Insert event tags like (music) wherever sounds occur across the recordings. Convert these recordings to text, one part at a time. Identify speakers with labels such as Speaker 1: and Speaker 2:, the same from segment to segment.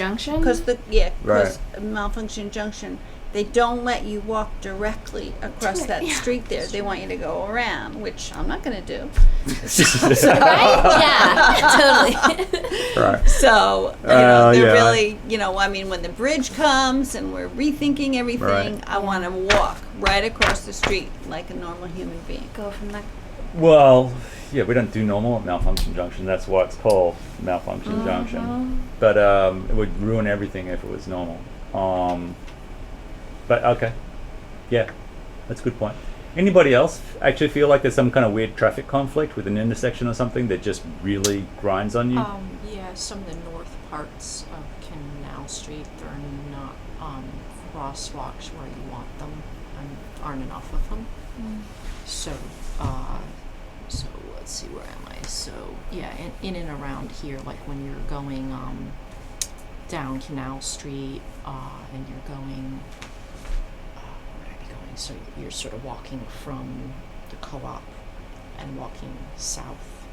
Speaker 1: junction? (laughs)
Speaker 2: Because the, yeah,
Speaker 3: Right.
Speaker 2: because malfunction junction, they don't let you walk directly across
Speaker 1: it,
Speaker 2: that
Speaker 1: yeah.
Speaker 2: street there. They want you to go around, which I'm not gonna do.
Speaker 1: (laughs) right? Yeah, totally.
Speaker 3: right.
Speaker 2: So, you
Speaker 3: Uh,
Speaker 2: know,
Speaker 3: yeah, I-
Speaker 2: they're really, you know, I mean, when the bridge comes and we're rethinking everything, I wanna walk right across the street like a normal human being.
Speaker 1: (laughs) Go from the
Speaker 3: Well, yeah, we don't do normal at malfunction junction. That's why it's called malfunction junction. But um, it would ruin everything if it was normal. Um, but okay, yeah, that's a good point. Anybody else actually feel like there's some kind of weird traffic conflict with an intersection or something that just really grinds on you?
Speaker 4: Um, yeah, some of the north parts of Canal Street, there are not, um, crosswalks where you want them, and aren't enough of them. So, uh, so let's see, where am I? So, yeah, in, in and around here, like when you're going, um, down Canal Street, uh, and you're going, uh, where would I be going? So you're sort of walking from the co-op and walking south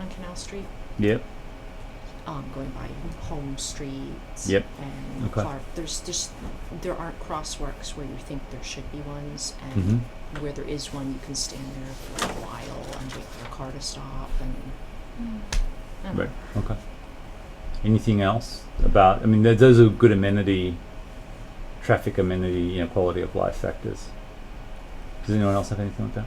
Speaker 4: on Canal Street
Speaker 3: yep.
Speaker 4: um, going by home streets.
Speaker 3: Yep.
Speaker 4: And
Speaker 3: Okay.
Speaker 4: Clark, there's just there aren't crosswalks where you think there should be ones, and
Speaker 3: Mhm.
Speaker 4: where there is one, you can stand there for a while and wait for a car to stop. And I
Speaker 5: Hmm.
Speaker 4: don't
Speaker 3: Right. Okay. Anything else about? I mean, th- those are good amenity, traffic amenity, you know, quality of life factors. Does anyone else have anything like that?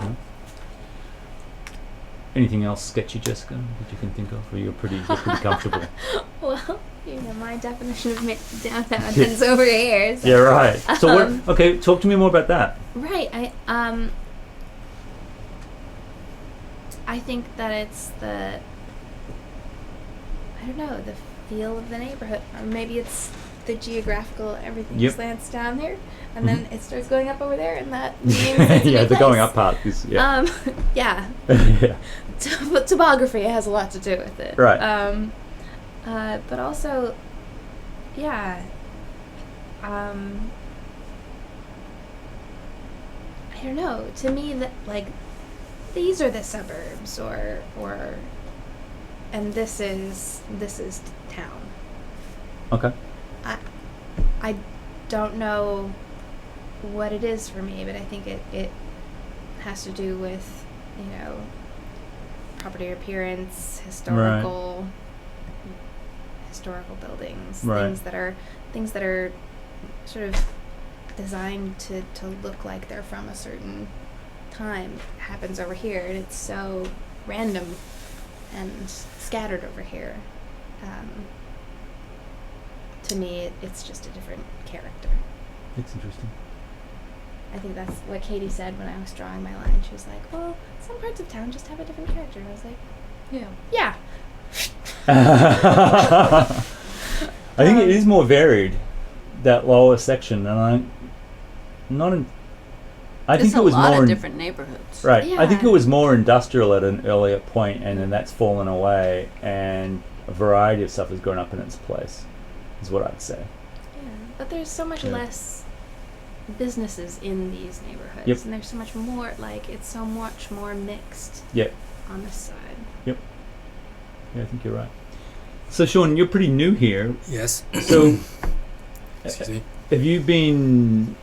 Speaker 3: No? Anything else sketchy, Jessica, that you can think of, or you're pretty, you're pretty comfortable?
Speaker 1: Well, you know, my definition of mid- downtown is over here. so-
Speaker 3: Yeah, right. So what? Okay, talk to me more about that.
Speaker 1: Right. I um I think that it's the I don't know, the feel of the neighborhood. Or maybe it's the geographical everything
Speaker 3: Yep.
Speaker 1: slants down here and
Speaker 3: Mhm.
Speaker 1: then it starts going up over there and
Speaker 3: (laughs)
Speaker 1: that means it's a
Speaker 3: yeah,
Speaker 1: new
Speaker 3: the going
Speaker 1: place.
Speaker 3: up part is yeah.
Speaker 1: Um (laughs) yeah.
Speaker 3: (laughs) yeah.
Speaker 1: (laughs) Top- topography has a lot to do with it.
Speaker 3: Right.
Speaker 1: Um, uh, but also, yeah. Um, I don't know. To me, that like these are the suburbs, or or, and this is this is town.
Speaker 3: Okay.
Speaker 1: I I don't know what it is for me, but I think it, it has to do with, you know, property appearance, historical historical buildings,
Speaker 3: Right.
Speaker 1: things that are things that are sort of designed to, to look like they're from a certain time happens over here and it's so random and scattered over here. Um, to me, it, it's just a different character.
Speaker 3: It's interesting.
Speaker 1: I think that's what Katie said when I was drawing my line. She was like, "Well, some parts of town just have a different character." And I was like,
Speaker 4: know. Yeah.
Speaker 3: (laughs)
Speaker 1: "Yeah,
Speaker 3: I think it
Speaker 1: Um,
Speaker 3: is more varied that lower section, and I'm not. In, I
Speaker 2: There's
Speaker 3: think it
Speaker 2: a
Speaker 3: was
Speaker 2: lot
Speaker 3: more
Speaker 2: of
Speaker 3: in-
Speaker 2: different neighborhoods.
Speaker 3: Right. I think it
Speaker 1: Yeah.
Speaker 3: was more industrial at an earlier point, and then that's fallen away, and a variety of stuff has grown up in its place. Is what I'd say.
Speaker 1: Um, yeah," but there's so much
Speaker 3: Yeah.
Speaker 1: less businesses in these neighborhoods,
Speaker 3: Yep.
Speaker 1: and there's so much more. Like, it's so much more mixed
Speaker 3: Yeah.
Speaker 1: on this side.
Speaker 3: Yeah, I think you're right. So, Sean, you're pretty new here.
Speaker 5: Yes.
Speaker 3: So,
Speaker 5: Hmm. Excuse me.
Speaker 3: Have you been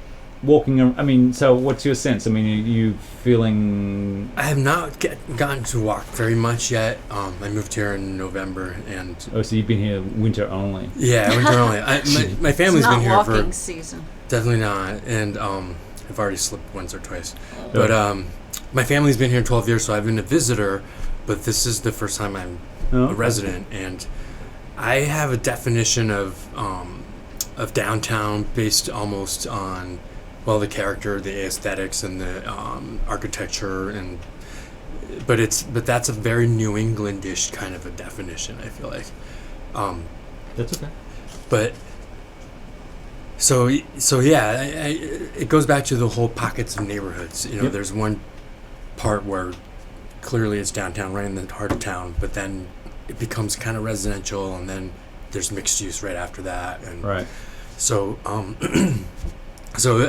Speaker 3: walking? ar- I mean, so what's your sense? I mean, are you feeling?
Speaker 5: I have not get, gotten to walk very much yet. Um, I moved here in November, and
Speaker 3: Oh, so you've been here winter only.
Speaker 5: yeah, I went to Raleigh. I,
Speaker 2: (laughs)
Speaker 5: my, my
Speaker 2: it's
Speaker 5: family's
Speaker 2: not
Speaker 5: been here
Speaker 2: walking
Speaker 5: for
Speaker 2: season.
Speaker 5: definitely not, and um, I've already slipped once or twice.
Speaker 2: Oh.
Speaker 5: But um, my family's been here 12 years, so I've been a visitor. But this is the first time I'm
Speaker 3: No?
Speaker 5: a resident, and I have a definition of um, of downtown based almost on well the character, the aesthetics, and the um, architecture, and but it's but that's a very New Englandish kind of a definition. I feel like, um,
Speaker 3: That's okay.
Speaker 5: but so y- so yeah, I, I, it goes back to the whole pockets of neighborhoods. You know,
Speaker 3: Yep.
Speaker 5: there's one part where clearly it's downtown, right in the heart of town, but then it becomes kind of residential, and then there's mixed use right after that, and
Speaker 3: Right.
Speaker 5: (clears throat) so um, so